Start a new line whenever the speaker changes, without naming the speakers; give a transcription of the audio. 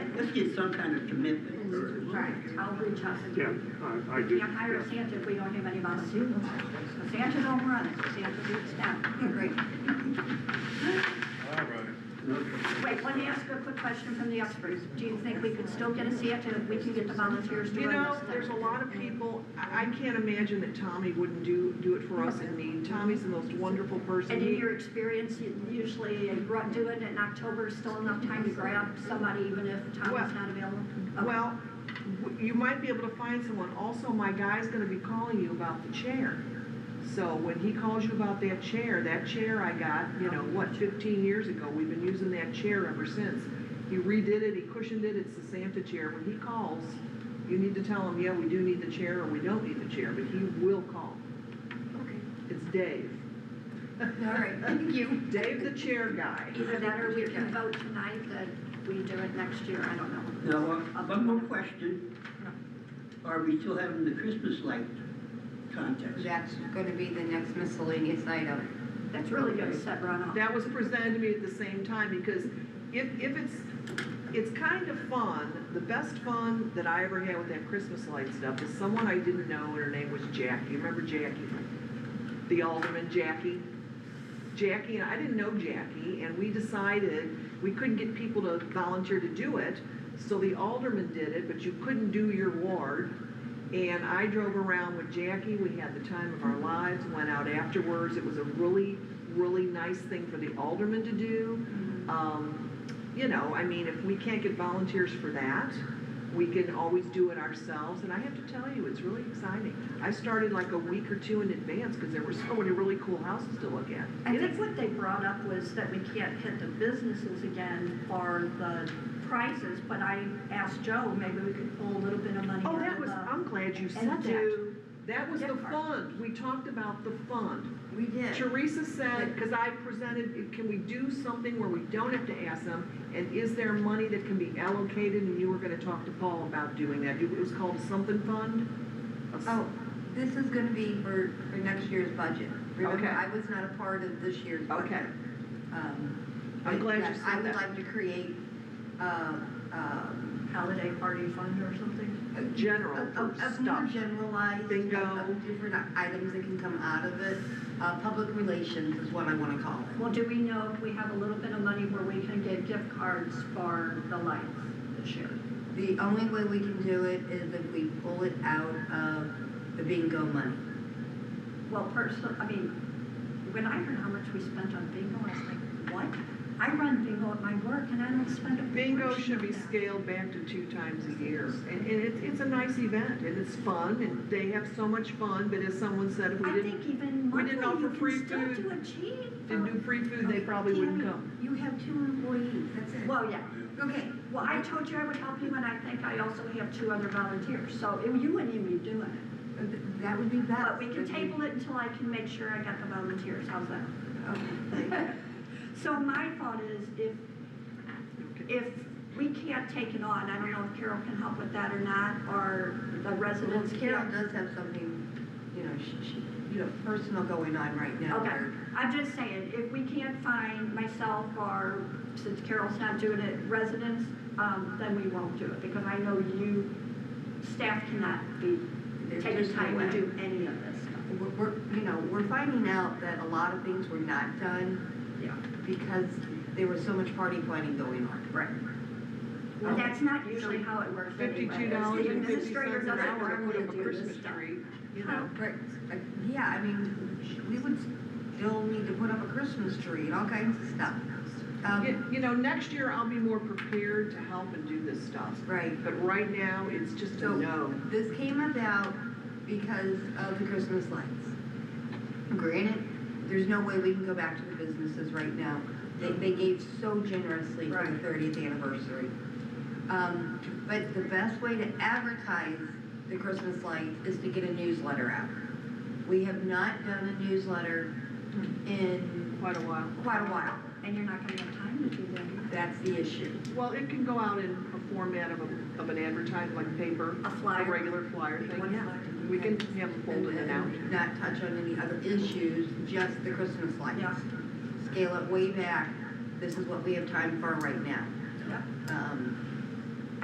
should get some kind of commitment or.
Right, I'll reach out to
Yeah,
you.
I, I do.
Yeah, hire Santa if we don't have anybody. But Santa don't run it, Santa beats down.
Great.
All right.
Wait, let me ask you a quick question from the experts. Do you think we could still get a Santa if we can get the volunteers to
You
run
know,
this thing?
there's a lot of people, I, I can't imagine that Tommy wouldn't do, do it for us in need. Tommy's the most wonderful person.
And in your experience, you usually ru- doing it in October, is still enough time to grab somebody even if time
Well-
is not available? Okay.
Well, w- you might be able to find someone. Also, my guy's gonna be calling you about the chair. So when he calls you about that chair, that chair I got, you know, what, fifteen years ago, we've been using that chair ever since. He redid it, he cushioned it, it's the Santa chair. When he calls, you need to tell him, yeah, we do need the chair or we don't need the chair, but he will call.
Okay.
It's Dave.
All right, thank you.
Dave the chair guy.
Either that or we can vote tonight that we do it next year, I don't know.
Now, uh, one more question. Are we still having the Christmas light contest?
That's gonna be the next miscellaneous item.
That's really gonna set Ron off.
That was presented to me at the same time, because if, if it's, it's kind of fun, the best fun that I ever had with that Christmas light stuff is someone I didn't know, and her name was Jackie, remember Jackie? The alderman Jackie? Jackie, and I didn't know Jackie, and we decided we couldn't get people to volunteer to do it, so the alderman did it, but you couldn't do your ward. And I drove around with Jackie, we had the time of our lives, went out afterwards, it was a really, really nice thing for the alderman to do. Um, you know, I mean, if we can't get volunteers for that, we can always do it ourselves, and I have to tell you, it's really exciting. I started like a week or two in advance, because there were so many really cool houses to look at.
I think what they brought up was that we can't hit the businesses again for the prices, but I asked Joe, maybe we could pull a little bit of money out
Oh,
of the.
that was, I'm glad you said
And
that.
do,
That was the
gift card.
fund, we talked about the fund.
We did.
Teresa said, because I presented, can we do something where we don't have to ask them? And is there money that can be allocated? And you were gonna talk to Paul about doing that. It was called something fund? A s-
Oh, this is gonna be for, for next year's budget. Remember,
Okay.
I was not a part of this year's budget.
Okay.
Um,
I'm
but
glad you
yes, I
said
would
that.
like to create, uh, um,
holiday party fund or something.
a-
General
a- a-
stuff.
A more generalized. of-
Bingo.
of Different items that can come out of it. Uh, public relations is what I wanna call it.
Well, do we know if we have a little bit of money where we can get gift cards for the lights this year?
The only way we can do it is if we pull it out of the bingo money.
Well, personally, I mean, when I heard how much we spent on bingo, I was like, what? I run bingo at my work and I don't spend a.
Bingo
portion
should
of
be
that.
scaled back to two times a year. And, and it's, it's a nice event and it's fun and they have so much fun, but as someone said, if we
I think
didn't,
even
we
monthly,
didn't
you
offer free
can still do a cheap.
didn't do free food, they probably wouldn't come.
You have two employees, that's it.
Well, yeah.
Okay,
Well, I told you I would help you and I think I also have two other volunteers, so it- you wouldn't even be doing it.
Uh, th- that would be best.
But we can table it until I can make sure I got the volunteers, how's that?
Okay.
So my thought is if, if we can't take it on, I don't know if Carol can help with that or not, or the
Well,
residents
Carol
can't.
does have something, you know, she, she, you know, personal going on right now.
Okay,
where-
I'm just saying, if we can't find myself or since Carol's not doing it, residents, um, then we won't do it because I know you, staff cannot be
There's
taking
just no
time to
way.
do any of this stuff.
We're, we're, you know, we're finding out that a lot of things were not done
Yeah.
because there was so much party planning going on.
Right. But that's not usually how it works anyway.
Fifty-two dollars and
The
fifty
administrator
cents an
doesn't
hour to
normally
put up a
do this
Christmas
stuff.
tree, you know?
Right, uh, yeah, I mean, we would still need to put up a Christmas tree and all kinds of stuff.
You,
Um,
you know, next year I'll be more prepared to help and do this stuff.
right.
But right now, it's just a
So-
no.
This came about because of the Christmas lights. Granted, there's no way we can go back to the businesses right now. They, they gave so generously for the
Right.
thirtieth anniversary. Um, but the best way to advertise the Christmas lights is to get a newsletter out. We have not done a newsletter in
Quite a while.
quite a while.
And you're not gonna have time to do that.
That's the issue.
Well, it can go out in a format of a, of an advertisement, like paper.
A flyer.
regular flyer thing,
One
yeah.
flyer.
We can have it folded and out.
And Not touch on any other issues, just the Christmas lights.
Yeah.
Scale it way back, this is what we have time for right now.
Yeah.
Um,